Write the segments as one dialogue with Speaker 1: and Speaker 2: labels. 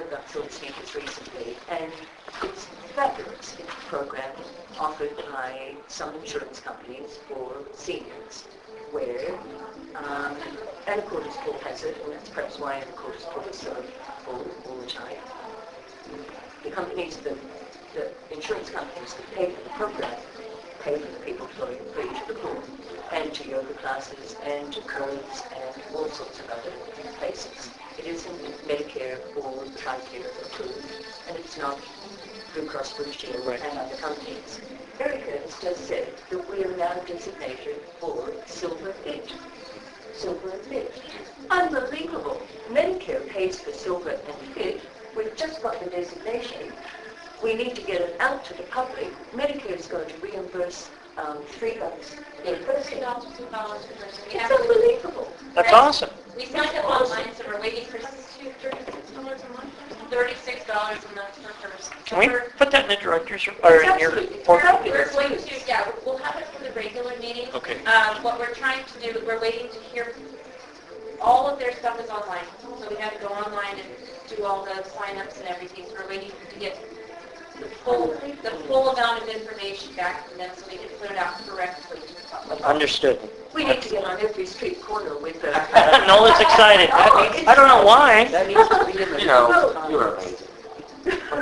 Speaker 1: about children's speakers recently, and it's fabulous. It's a program offered by some insurance companies for seniors, where, um, and of course, Paul has it, and that's perhaps why, of course, Paul is so full all the time. The companies, the, the insurance companies that pay for the program, pay for the people to go in for each of the pool, and to yoga classes, and to curves, and all sorts of other places. It isn't Medicare or TRICARE approved, and it's not Blue Cross Blue Shield
Speaker 2: Right.
Speaker 1: and other companies. Erica has just said that we are now designated for Silver Fit. Silver and Fit. Unbelievable. Medicare pays for Silver and Fit. We've just got the designation. We need to get it out to the public. Medicare is going to reimburse um, three dollars per
Speaker 3: Two
Speaker 1: person.
Speaker 3: dollars, two dollars per person. We
Speaker 1: It's
Speaker 3: have-
Speaker 1: unbelievable.
Speaker 2: That's awesome.
Speaker 3: We signed up online, so we're waiting for thirty-six dollars a month? Thirty-six dollars a month per person. So
Speaker 2: Can we
Speaker 3: we're-
Speaker 2: put that in the director's, or in your
Speaker 1: Absolutely.
Speaker 2: report?
Speaker 3: We're going to, yeah, we'll have it for the regular meeting.
Speaker 2: Okay.
Speaker 3: Um, what we're trying to do, we're waiting to hear, all of their stuff is online, so we have to go online and do all the signups and everything, so we're waiting to get the full, the full amount of information back from them, so we can put it out correctly to the public.
Speaker 2: Understood.
Speaker 1: We need to get on every street corner with a...
Speaker 2: Nola's excited. I I don't know why.
Speaker 4: That needs to be in the.
Speaker 5: You know, you are amazing.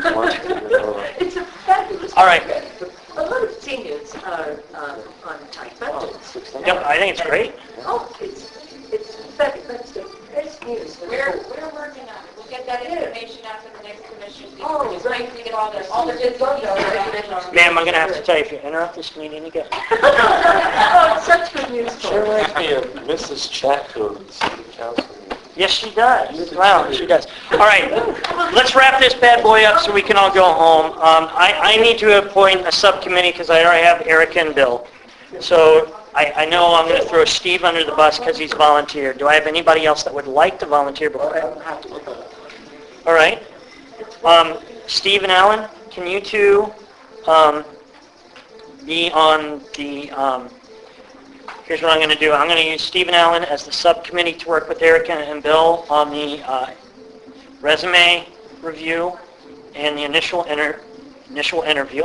Speaker 1: It's a fabulous...
Speaker 2: All right.
Speaker 1: program. A lot of seniors are um, on tight budgets.
Speaker 2: Yep, I think it's great.
Speaker 1: Oh, it's, it's fabulous. That's the best news. for the
Speaker 3: We're,
Speaker 1: whole-
Speaker 3: we're working on it. We'll get that information out to the next commission. meeting.
Speaker 1: Oh,
Speaker 3: We're just waiting to get all the, all the good stuff.
Speaker 2: Ma'am, I'm gonna have to tell you, if you interrupt this meeting again.
Speaker 1: Oh, it's such good news
Speaker 5: There
Speaker 1: for us.
Speaker 5: might be a Mrs. Chatfield in the city council. meeting.
Speaker 2: Yes, she does. Wow, she does. All right, let's wrap this bad boy up so we can all go home. Um, I, I need to appoint a subcommittee because I already have Eric and Bill. So I, I know I'm going to throw Steve under the bus because he's volunteered. Do I have anybody else that would like to volunteer before I All right. Um, Steve and Alan, can you two um, be on the, um, here's what I'm going to do. I'm going to use Steve and Alan as the subcommittee to work with Erica and Bill on the uh, resume review and the initial inter, initial interview.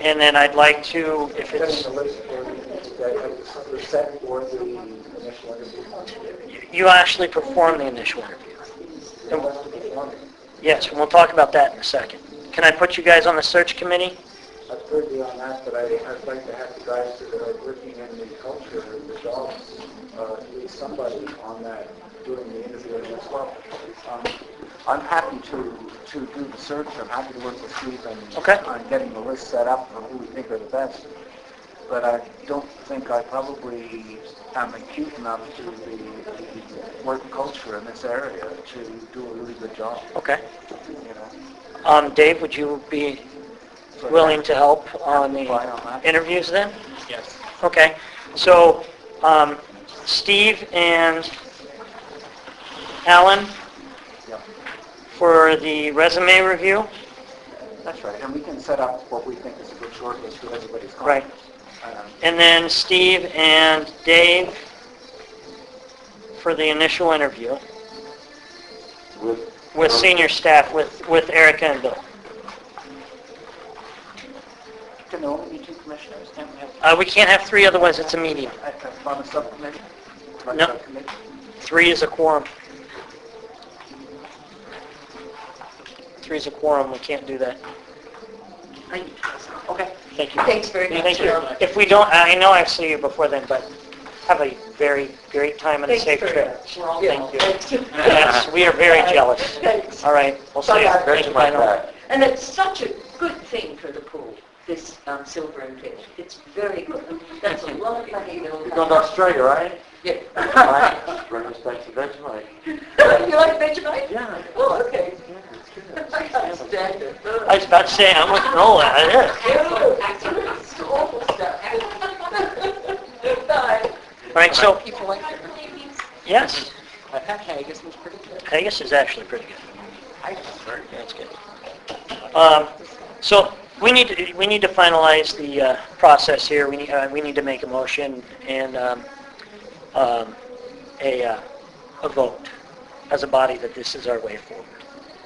Speaker 2: And then I'd like to, if it's,
Speaker 6: Setting the list for the, that, uh, set for the initial interview.
Speaker 2: you actually perform the initial interview.
Speaker 6: It wasn't performing.
Speaker 2: Yes, and we'll talk about that in a second. Can I put you guys on the search committee?
Speaker 6: I've heard you on that, but I, I'd like to have the guys that are working in the culture of the dog, uh, at least somebody on that doing the interviewing as well. Um, I'm happy to, to do the search, I'm happy to work with Steve and
Speaker 2: Okay.
Speaker 6: on getting the list set up for who we think are the best. But I don't think I probably am acute enough to the work culture in this area to do a really good job,
Speaker 2: Okay.
Speaker 6: you know?
Speaker 2: Um, Dave, would you be
Speaker 6: So-
Speaker 2: willing to help on
Speaker 6: Fine, I'm
Speaker 2: the
Speaker 6: happy.
Speaker 2: interviews then?
Speaker 5: Yes.
Speaker 2: Okay. So, um, Steve and Alan
Speaker 6: Yeah.
Speaker 2: for the resume review?
Speaker 6: That's right, and we can set up what we think is a good shortlist for everybody's
Speaker 2: Right.
Speaker 6: comments. Um,
Speaker 2: And then Steve and Dave for the initial interview
Speaker 5: With-
Speaker 2: with senior staff, with, with Erica and Bill.
Speaker 6: Can there only be two commissioners, can't we have,
Speaker 2: Uh, we can't have three, otherwise it's a meeting.
Speaker 6: uh, uh, on a subcommittee? Right,
Speaker 2: No.
Speaker 6: subcommittee?
Speaker 2: Three is a quorum. Three is a quorum, we can't do that.
Speaker 6: Okay.
Speaker 2: Thank you.
Speaker 1: Thanks very much.
Speaker 2: Thank you. If we don't, I know I've seen you before then, but have a very great time and a
Speaker 1: Thanks
Speaker 2: safe
Speaker 1: very
Speaker 2: trip.
Speaker 1: much. We're all
Speaker 6: Yeah.
Speaker 1: jealous.
Speaker 2: Yes, we are very jealous.
Speaker 1: Thanks.
Speaker 2: All right, we'll see you.
Speaker 1: Bye-bye.
Speaker 2: Thank
Speaker 5: Back to
Speaker 2: you,
Speaker 5: my
Speaker 2: bye now.
Speaker 5: back.
Speaker 1: And it's such a good thing for the pool, this um, silver and fish. It's very good. That's a lot of money that will
Speaker 5: You're
Speaker 1: come.
Speaker 5: going to Australia, right?
Speaker 1: Yeah.
Speaker 5: Right. Bring us back to Vegemite.
Speaker 1: You like Vegemite?
Speaker 5: Yeah.
Speaker 1: Oh, okay.
Speaker 5: Yeah, it's good.
Speaker 1: I can't stand it. Ugh.
Speaker 2: I was about to say, I'm with Nola, I is.
Speaker 1: Ew, It's awful stuff. Bye.
Speaker 2: All right, so,
Speaker 4: People like it.
Speaker 2: yes,
Speaker 4: I thought haggis was pretty good.
Speaker 2: Haggis is actually pretty good.
Speaker 4: Haggis is very good.
Speaker 2: That's good. Um, So we need, to- we need to finalize the uh, process here. We need, uh, we need to make a motion and um, um, a, uh, a vote as a body that this is our way forward.